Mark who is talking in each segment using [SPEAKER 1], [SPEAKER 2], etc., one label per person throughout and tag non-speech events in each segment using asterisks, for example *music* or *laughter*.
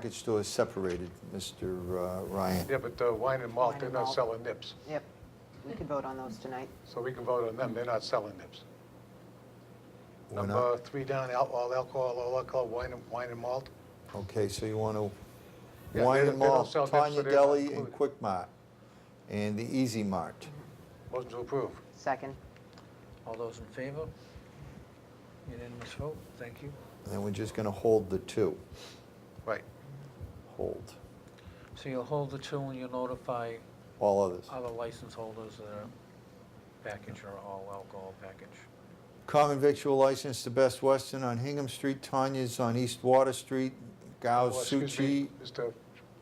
[SPEAKER 1] Package store is separated, Mr. uh, Ryan.
[SPEAKER 2] Yeah, but uh, wine and malt,
[SPEAKER 3] Wine
[SPEAKER 2] they're
[SPEAKER 3] and
[SPEAKER 2] not
[SPEAKER 3] malt.
[SPEAKER 2] selling nips,
[SPEAKER 3] Yep, we could vote on those tonight.
[SPEAKER 2] so we can vote on them, they're not selling nips.
[SPEAKER 1] We're not-
[SPEAKER 2] Number three down, al- all alcohol, all alcohol, wine and, wine and malt.
[SPEAKER 1] Okay, so you want to,
[SPEAKER 2] Yeah,
[SPEAKER 1] wine
[SPEAKER 2] they-
[SPEAKER 1] and
[SPEAKER 2] they don't
[SPEAKER 1] malt,
[SPEAKER 2] sell dips, so
[SPEAKER 1] Tanya
[SPEAKER 2] they're not
[SPEAKER 1] Deli and
[SPEAKER 2] included.
[SPEAKER 1] Quick Mart, and the Easy Mart.
[SPEAKER 2] Mm-hmm. Motion to approve.
[SPEAKER 3] Second,
[SPEAKER 4] All those in favor? Unanimous vote, thank you.
[SPEAKER 1] And then we're just going to hold the two,
[SPEAKER 2] Right.
[SPEAKER 1] hold,
[SPEAKER 4] So you'll hold the two and you'll notify
[SPEAKER 1] all others.
[SPEAKER 4] other license holders that are package or all alcohol package.
[SPEAKER 1] Common victual license to Best Western on Hingham Street, Tanya's on East Water Street, Gao's
[SPEAKER 2] Well, Oh, excuse me,
[SPEAKER 1] Oh, Suchi.
[SPEAKER 2] Mr.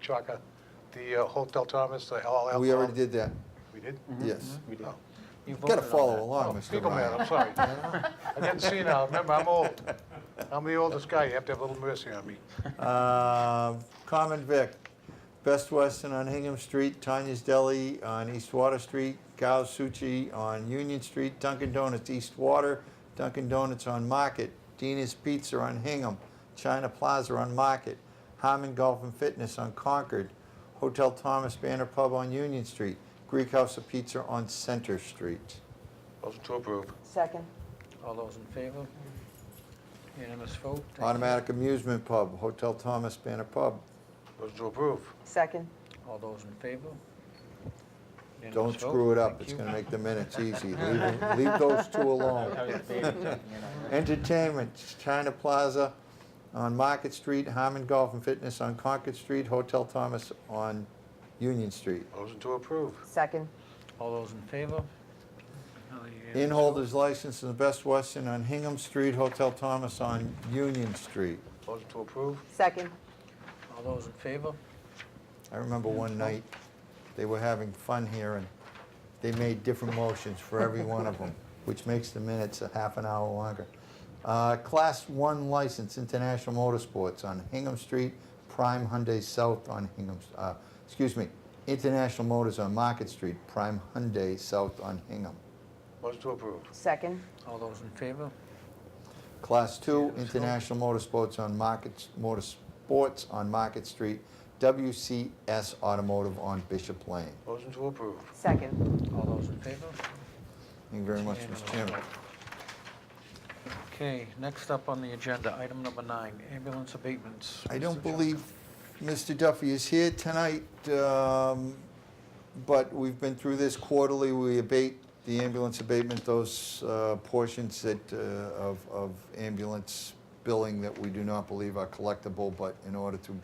[SPEAKER 2] Chaka, the uh, Hotel Thomas, the all alcohol.
[SPEAKER 1] We already did Oh, that,
[SPEAKER 2] We did?
[SPEAKER 1] yes.
[SPEAKER 2] We did.
[SPEAKER 4] You
[SPEAKER 1] Got to
[SPEAKER 4] voted on
[SPEAKER 1] follow
[SPEAKER 4] that.
[SPEAKER 2] Oh,
[SPEAKER 1] along, Mr.
[SPEAKER 2] Fecal man, I'm
[SPEAKER 1] Ryan.
[SPEAKER 2] sorry. I didn't see now, remember, I'm old. I'm the oldest guy, you have to have a little mercy on me.
[SPEAKER 1] Um, Common Vic, Best Western on Hingham Street, Tanya's Deli on East Water Street, Gao's Suchi on Union Street, Dunkin' Donuts East Water, Dunkin' Donuts on Market, Dina's Pizza on Hingham, China Plaza on Market, Harmon Golf and Fitness on Concord, Hotel Thomas Banner Pub on Union Street, Greek House of Pizza on Center Street.
[SPEAKER 2] Motion to approve.
[SPEAKER 3] second,
[SPEAKER 4] All those in favor? Unanimous vote, thank you.
[SPEAKER 1] Automatic Amusement Pub, Hotel Thomas Banner Pub.
[SPEAKER 2] Motion to approve.
[SPEAKER 3] second,
[SPEAKER 4] All those in favor?
[SPEAKER 1] Don't
[SPEAKER 4] Unanimous vote,
[SPEAKER 1] screw it up,
[SPEAKER 4] thank
[SPEAKER 1] it's
[SPEAKER 4] you.
[SPEAKER 1] gonna make the
[SPEAKER 4] *laughs*
[SPEAKER 1] minutes easy. Leave leave those two alone. Entertainment, China Plaza on Market Street, Harmon Golf and Fitness on Concord Street, Hotel Thomas on Union Street.
[SPEAKER 2] Motion to approve.
[SPEAKER 3] second,
[SPEAKER 4] All those in favor? Another
[SPEAKER 1] Inn
[SPEAKER 4] unanimous vote.
[SPEAKER 1] holders license in the Best Western on Hingham Street, Hotel Thomas on Union Street.
[SPEAKER 2] Motion to approve.
[SPEAKER 3] second,
[SPEAKER 4] All those in favor?
[SPEAKER 1] I remember one night, they were having fun here, and they made different motions for every one of them, which makes the minutes a half an hour longer. Uh, Class 1 license, International Motorsports on Hingham Street, Prime Hyundai South on Hingham, uh, excuse me, International Motors on Market Street, Prime Hyundai South on Hingham.
[SPEAKER 2] Motion to approve.
[SPEAKER 3] second,
[SPEAKER 4] All those in favor?
[SPEAKER 1] Class 2, International Motorsports on Market, Motorsports on Market Street, WCS Automotive on Bishop Lane.
[SPEAKER 2] Motion to approve.
[SPEAKER 3] second,
[SPEAKER 4] All those in favor?
[SPEAKER 1] Thank you very much, Mr. Chairman.
[SPEAKER 4] Okay, next up on the agenda, item number nine, ambulance abatements.
[SPEAKER 1] I
[SPEAKER 4] Mr.
[SPEAKER 1] don't
[SPEAKER 4] Chairman.
[SPEAKER 1] believe Mr. Duffy is here tonight, um, but we've been through this quarterly. We abate the ambulance abatement, those uh, portions that, uh, of of ambulance billing that we do not believe are collectible, but in order to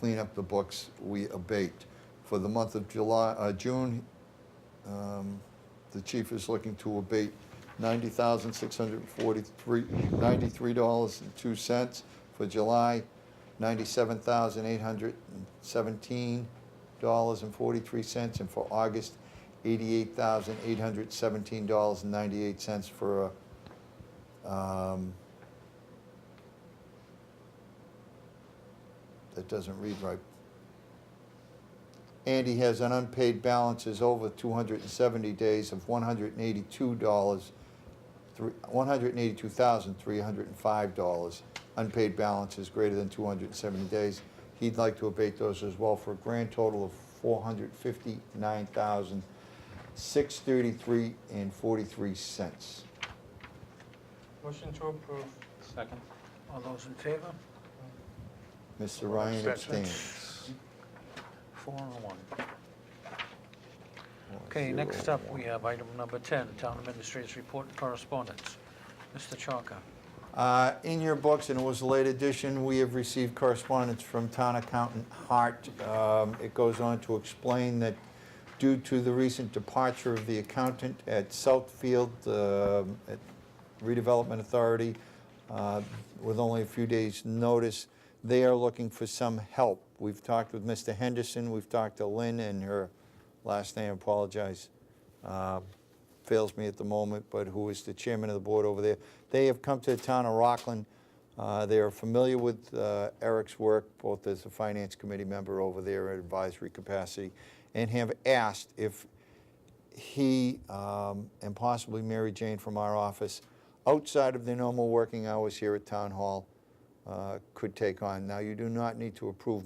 [SPEAKER 1] clean up the books, we abate. For the month of July, uh, June, um, the chief is looking to abate ninety thousand, six hundred and forty-three, ninety-three dollars and two cents. For July, ninety-seven thousand, eight hundred and seventeen dollars and forty-three cents. And for August, eighty-eight thousand, eight hundred and seventeen dollars and ninety-eight cents for a, um, that doesn't read right. Andy has an unpaid balances over 270 days of $182, three- $182,305. Unpaid balances greater than 270 days. He'd like to abate those as well for a grand total of 459633 and 43 cents.
[SPEAKER 5] Motion to approve. Second.
[SPEAKER 4] All those in favor?
[SPEAKER 1] Mr. Ryan
[SPEAKER 2] Abstention.
[SPEAKER 1] abstains.
[SPEAKER 4] Four and one. Okay, next up, we have item number 10, town administrator's report and correspondence. Mr. Chalker.
[SPEAKER 1] Uh, In your books, and it was a late edition, we have received correspondence from town accountant Hart. Um, It goes on to explain that due to the recent departure of the accountant at Southfield um, at Redevelopment Authority, uh, with only a few days' notice, they are looking for some help. We've talked with Mr. Henderson, we've talked to Lynn and her last name, apologize, uh, fails me at the moment, but who is the chairman of the board over there. They have come to the town of Rockland. Uh, They are familiar with uh, Eric's work, both as a finance committee member over there in advisory capacity, and have asked if he um, and possibly Mary Jane from our office, outside of their normal working hours here at Town Hall, uh, could take on. Now, you do not need to approve